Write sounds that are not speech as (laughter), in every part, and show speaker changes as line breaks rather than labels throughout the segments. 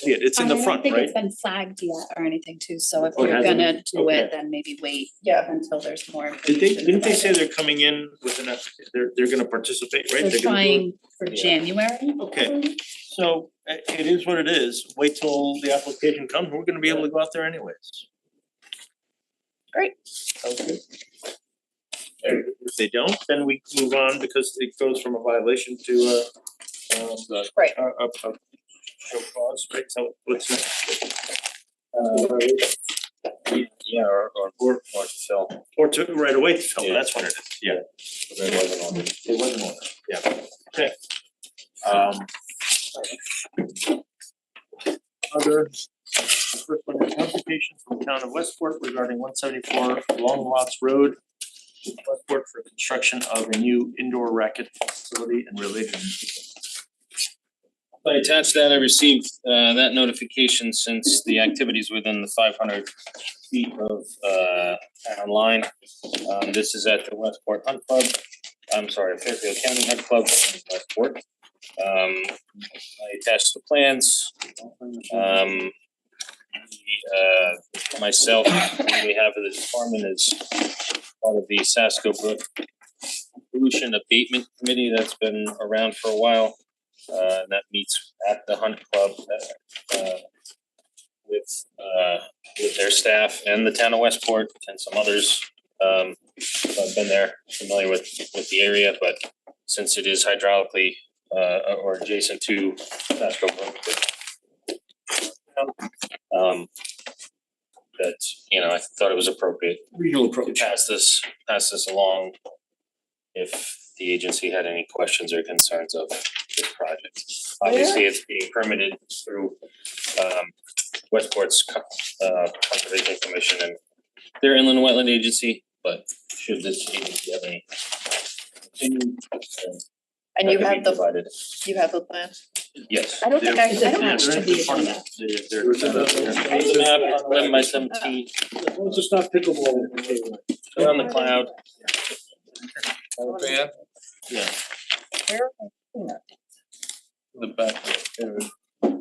see it, it's in the front,
I don't think
right?
it's been flagged yet or anything too, so if
Oh, it
you're
hasn't?
gonna do
Okay.
it, then maybe wait
Yeah.
until there's more
Did they,
information.
didn't they
about
say
it.
they're coming in with an, app- they're, they're gonna participate, right?
They're
gonna do it?
trying for
Yeah.
January,
Okay, so i- it is what it is, wait till the application comes, we're gonna be able to go out there anyways.
Great.
Sounds good. And If they don't, then we move on because it goes from a violation to a um
Right.
a a a show cause, right, so what's next? Uh,
Yeah, or or or or to sell,
or to right away to tell, that's what it is, yeah.
but there wasn't on it. It wasn't on it.
Okay,
Um,
other, the first one is notification from the town of Westport regarding one seventy four Long Lots Road. Westport for construction of a new indoor racket facility and related.
I attached that, I received uh that notification since the activities within the five hundred feet of uh town line. Um this is at the Westport Hunt Club, I'm sorry, Fairfield County Hunt Club in Westport. Um I attached the plans, um the, uh myself, on behalf of the department is part of the Sasko Brook pollution abatement committee that's been around for a while uh that meets at the Hunt Club uh, uh with uh with their staff and the town of Westport and some others. Um so I've been there, familiar with with the area, but since it is hydraulically uh or adjacent to Pasco Brook. but- Um that, you know, I thought it was appropriate
Regional
to pass this, pass this along if the agency had any questions or concerns of this project. Obviously, it's being permitted through um Westport's co- uh Conservation Commission and their inland wetland agency, but should this agency have any opinion,
And
that could
you
be
have the,
provided,
you have the plan?
yes.
I don't think I, I don't
Yeah,
actually
they're
be
in front of
agenda.
it. They're- they're-
There's a map on eleven by seventeen,
It's just not pickleball.
they're on the cloud,
Yeah.
the back.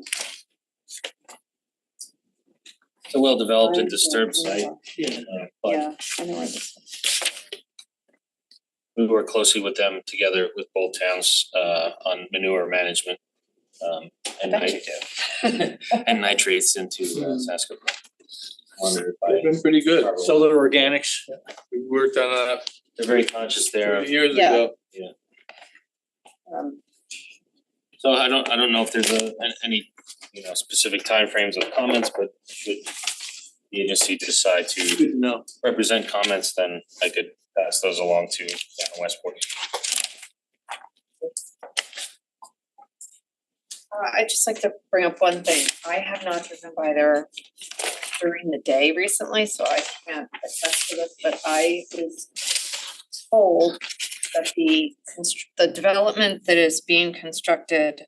it's a well-developed and disturbed site, uh, but
Yeah, I know where this is.
we work closely with them together with both towns uh on manure management. Um and
I bet you
nit- (laughs) and nitrates into uh Sasko. Monitored by,
Been pretty good.
Solar organics.
We worked on that
they're very conscious there of,
years
Yeah.
ago.
Um,
so I don't, I don't know if there's a an- any, you know, specific timeframes of comments, but should the agency decide to
Good to know.
represent comments, then I could pass those along to uh, Westport.
Uh, I'd just like to bring up one thing. I have not driven by there during the day recently, so I can't attest to this, but I was told that the constr- the development that is being constructed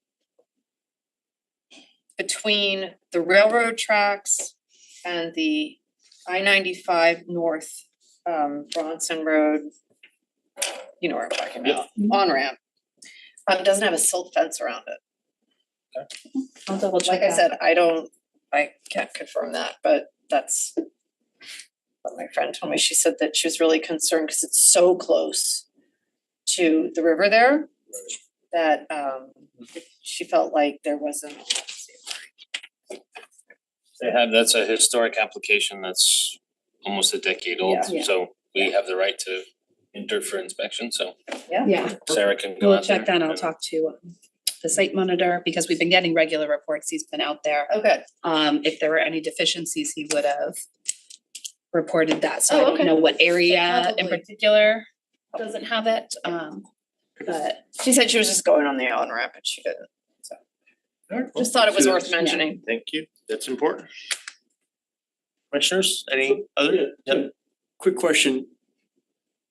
between the railroad tracks and the I ninety-five north, um, Bronson Road, you know where I'm talking about, on ramp, um, doesn't have a silt fence around it.
I'll double check
Like I
that.
said, I don't, I can't confirm that, but that's what my friend told me. She said that she was really concerned because it's so close to the river there that um she felt like there wasn't
They have, that's a historic application that's almost a decade old,
Yeah. Yeah.
so we have the right to enter for inspection, so
Yeah,
Sarah can go
we'll
out there.
check that, I'll
and-
talk to um, the site monitor, because we've been getting regular reports, he's been out there.
Okay,
Um, if there were any deficiencies, he would have reported that, so I
Oh,
don't
okay.
know what area in
Probably.
particular doesn't have it, um, but
she said she was just going on the island ramp and she didn't.
Alright, well,
Just thought it was
so
worth
that's-
mentioning.
Thank you, that's important. Commissioners, any other? Yep.
Quick question.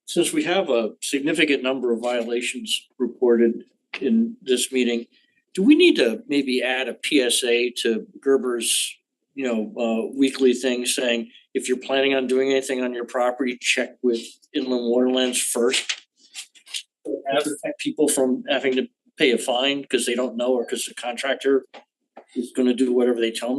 Since we have a significant number of violations reported in this meeting, do we need to maybe add a PSA to Gerber's, you know, uh, weekly thing saying, if you're planning on doing anything on your property, check with inland waterlands first? And protect people from having to pay a fine because they don't know or because the contractor is gonna do whatever they tell them